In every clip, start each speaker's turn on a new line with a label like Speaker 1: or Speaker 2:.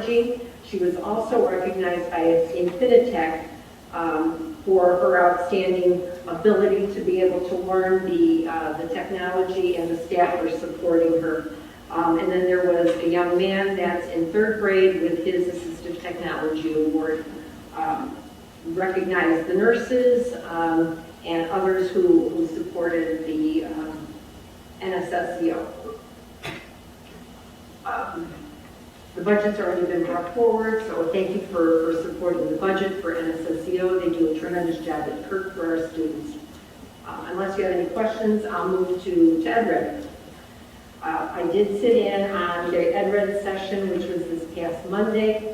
Speaker 1: technology. She was also recognized by Infinitec um, for her outstanding ability to be able to learn the, uh, the technology and the staff were supporting her. Um, And then there was a young man that's in third grade with his Assistive Technology Award. um, Recognized the nurses um, and others who who supported the um, NSSEO. Um, the budget's already been brought forward, so thank you for, for supporting the budget for NSSEO. They do a tremendous job at Kirk for our students. Uh, Unless you have any questions, I'll move to, to Ed Red. Uh, I did sit in on the Ed Red session, which was this past Monday.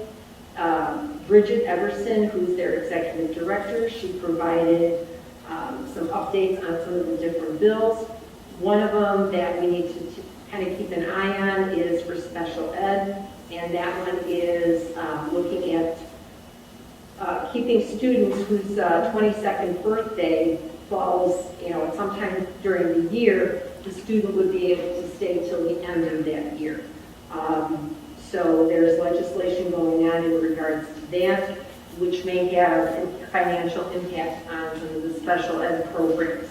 Speaker 1: Um, Bridget Everson, who's their executive director, she provided um, some updates on some of the different bills. One of them that we need to kind of keep an eye on is for special ed, and that one is um, looking at uh, keeping students whose uh, 22nd birthday falls, you know, sometime during the year, the student would be able to stay till the end of that year. Um, So there's legislation going on in regards to that, which may have a financial impact on some of the special ed programs.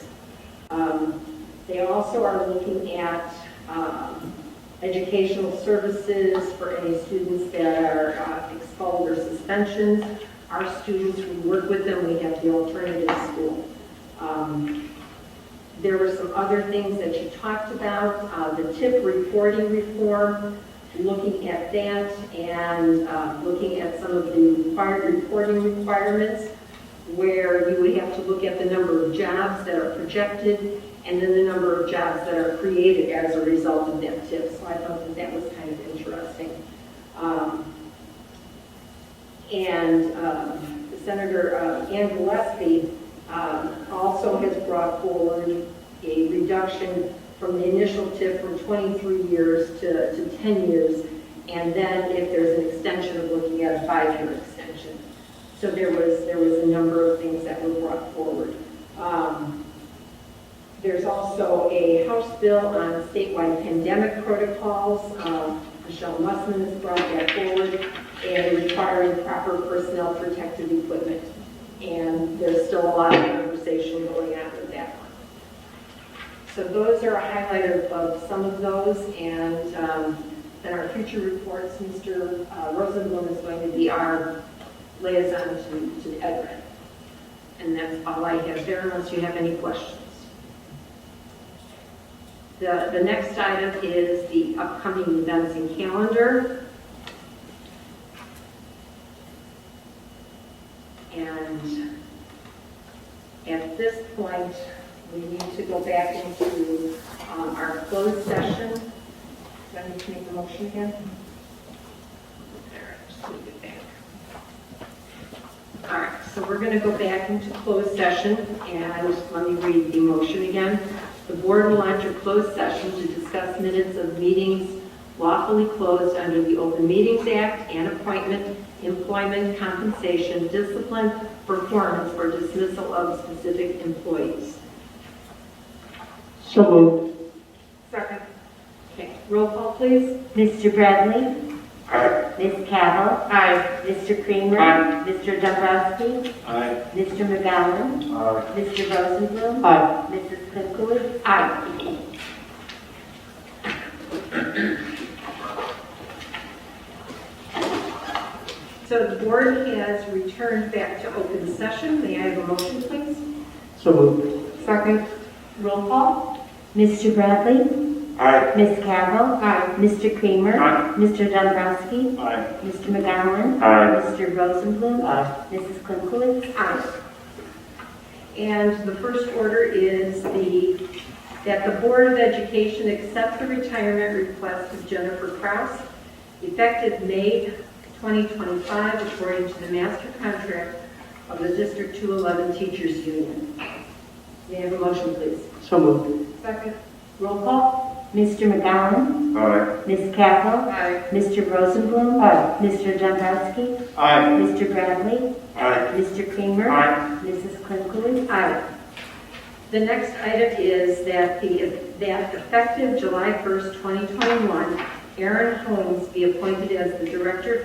Speaker 1: Um, They also are looking at um, educational services for any students that are uh, expelled or suspensions. Our students, we work with them, we have the alternative school. Um, There were some other things that you talked about, uh, the tip reporting reform, looking at that and uh, looking at some of the required reporting requirements where you would have to look at the number of jobs that are projected and then the number of jobs that are created as a result of that tip. So I thought that that was kind of interesting. Um, And um, Senator uh, Ann Gillespie um, also has brought forward a reduction from the initial tip from 23 years to to 10 years. And then if there's an extension, of looking at a five-year extension. So there was, there was a number of things that were brought forward. Um, There's also a House bill on statewide pandemic protocols. Um, Michelle Mussman has brought that forward and requiring proper personnel protective equipment. And there's still a lot of conversation going on with that one. So those are a highlight of, of some of those, and um, then our future reports, Mr. uh, Rosenblum is going to be our liaison to, to EdRed. And that's all I have there, unless you have any questions. The, the next item is the upcoming events and calendar. And at this point, we need to go back into um, our closed session. Do I need to make a motion again? There, just leave it back. All right, so we're going to go back into closed session, and let me read the motion again. The board will enter closed session to discuss minutes of meetings lawfully closed under the Open Meetings Act and appointment, employment, compensation, discipline, performance, or dismissal of specific employees.
Speaker 2: So moved.
Speaker 1: Second. Okay, roll call, please.
Speaker 3: Mr. Bradley? Ms. Cavill? Aye. Mr. Creamer?
Speaker 2: Aye.
Speaker 3: Mr. Dombrowski?
Speaker 2: Aye.
Speaker 3: Mr. McGowan?
Speaker 2: Aye.
Speaker 3: Mr. Rosenblum?
Speaker 2: Aye.
Speaker 3: Mrs. Klinkouli?
Speaker 1: Aye. So the board has returned back to open session. May I have a motion, please?
Speaker 2: So moved.
Speaker 1: Second. Roll call?
Speaker 3: Mr. Bradley?
Speaker 2: Aye.
Speaker 3: Ms. Cavill?
Speaker 1: Aye.
Speaker 3: Mr. Creamer?
Speaker 2: Aye.
Speaker 3: Mr. Dombrowski?
Speaker 2: Aye.
Speaker 3: Mr. McGowan?
Speaker 2: Aye.
Speaker 3: Mr. Rosenblum?
Speaker 2: Aye.
Speaker 3: Mrs. Klinkouli?
Speaker 1: Aye. And the first order is the, that the Board of Education accept the retirement request of Jennifer Kraus, effective May 2025, according to the master contract of the District 211 Teachers Union. May I have a motion, please?
Speaker 2: So moved.
Speaker 1: Second. Roll call?
Speaker 3: Mr. McGowan?
Speaker 2: Aye.
Speaker 3: Ms. Cavill?
Speaker 1: Aye.
Speaker 3: Mr. Rosenblum?
Speaker 2: Aye.
Speaker 3: Mr. Dombrowski?
Speaker 2: Aye.
Speaker 3: Mr. Bradley?
Speaker 2: Aye.
Speaker 3: Mr. Creamer?
Speaker 2: Aye.
Speaker 3: Mrs. Klinkouli?
Speaker 1: Aye. The next item is that the, that effective July 1st, 2021, Aaron Holmes be appointed as the Director